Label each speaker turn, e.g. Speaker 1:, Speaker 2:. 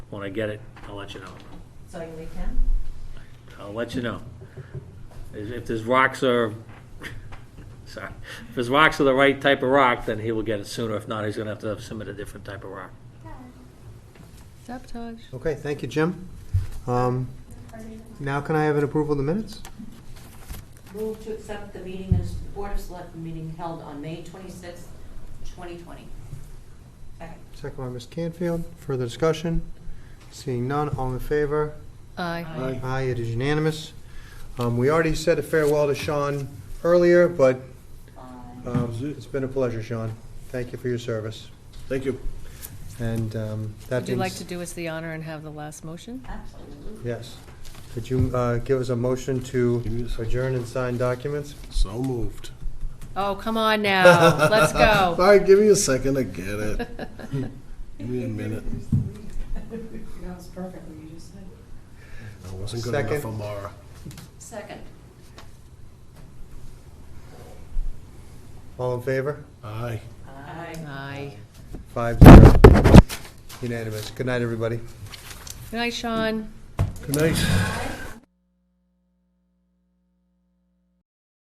Speaker 1: when I get it, I'll let you know.
Speaker 2: So you leave town?
Speaker 1: I'll let you know. If if there's rocks are, sorry, if his rocks are the right type of rock, then he will get it sooner. If not, he's gonna have to submit a different type of rock.
Speaker 3: Sabotage.
Speaker 4: Okay, thank you, Jim. Um, Now can I have an approval of the minutes?
Speaker 2: Move to accept the meeting as Board of Selectmen meeting held on May twenty-sixth, twenty twenty. Second.
Speaker 4: Second by Ms. Canfield. Further discussion? Seeing none, all in favor?
Speaker 3: Aye.
Speaker 2: Aye.
Speaker 4: Aye, it is unanimous. Um, We already said a farewell to Sean earlier, but
Speaker 2: Aye.
Speaker 4: um, it's been a pleasure, Sean. Thank you for your service.
Speaker 5: Thank you.
Speaker 4: And um, that
Speaker 3: Would you
Speaker 4: being...
Speaker 3: like
Speaker 4: s-
Speaker 3: to do us the honor and have the last motion?
Speaker 2: Absolutely.
Speaker 4: Yes. Could you uh, give us a motion
Speaker 5: Give me
Speaker 4: to
Speaker 5: this.
Speaker 4: adjourn and sign documents?
Speaker 5: So moved.
Speaker 3: Oh, come on now, let's
Speaker 5: All
Speaker 3: go.
Speaker 5: right, give me a second to get it. Give me a minute.
Speaker 6: That was perfect what you just said.
Speaker 5: I wasn't good enough
Speaker 4: Second.
Speaker 5: for Mara.
Speaker 2: Second.
Speaker 4: All in favor?
Speaker 5: Aye.
Speaker 2: Aye.
Speaker 3: Aye.
Speaker 4: Five zero. Unanimous. Good night, everybody.
Speaker 3: Good night, Sean.
Speaker 5: Good night.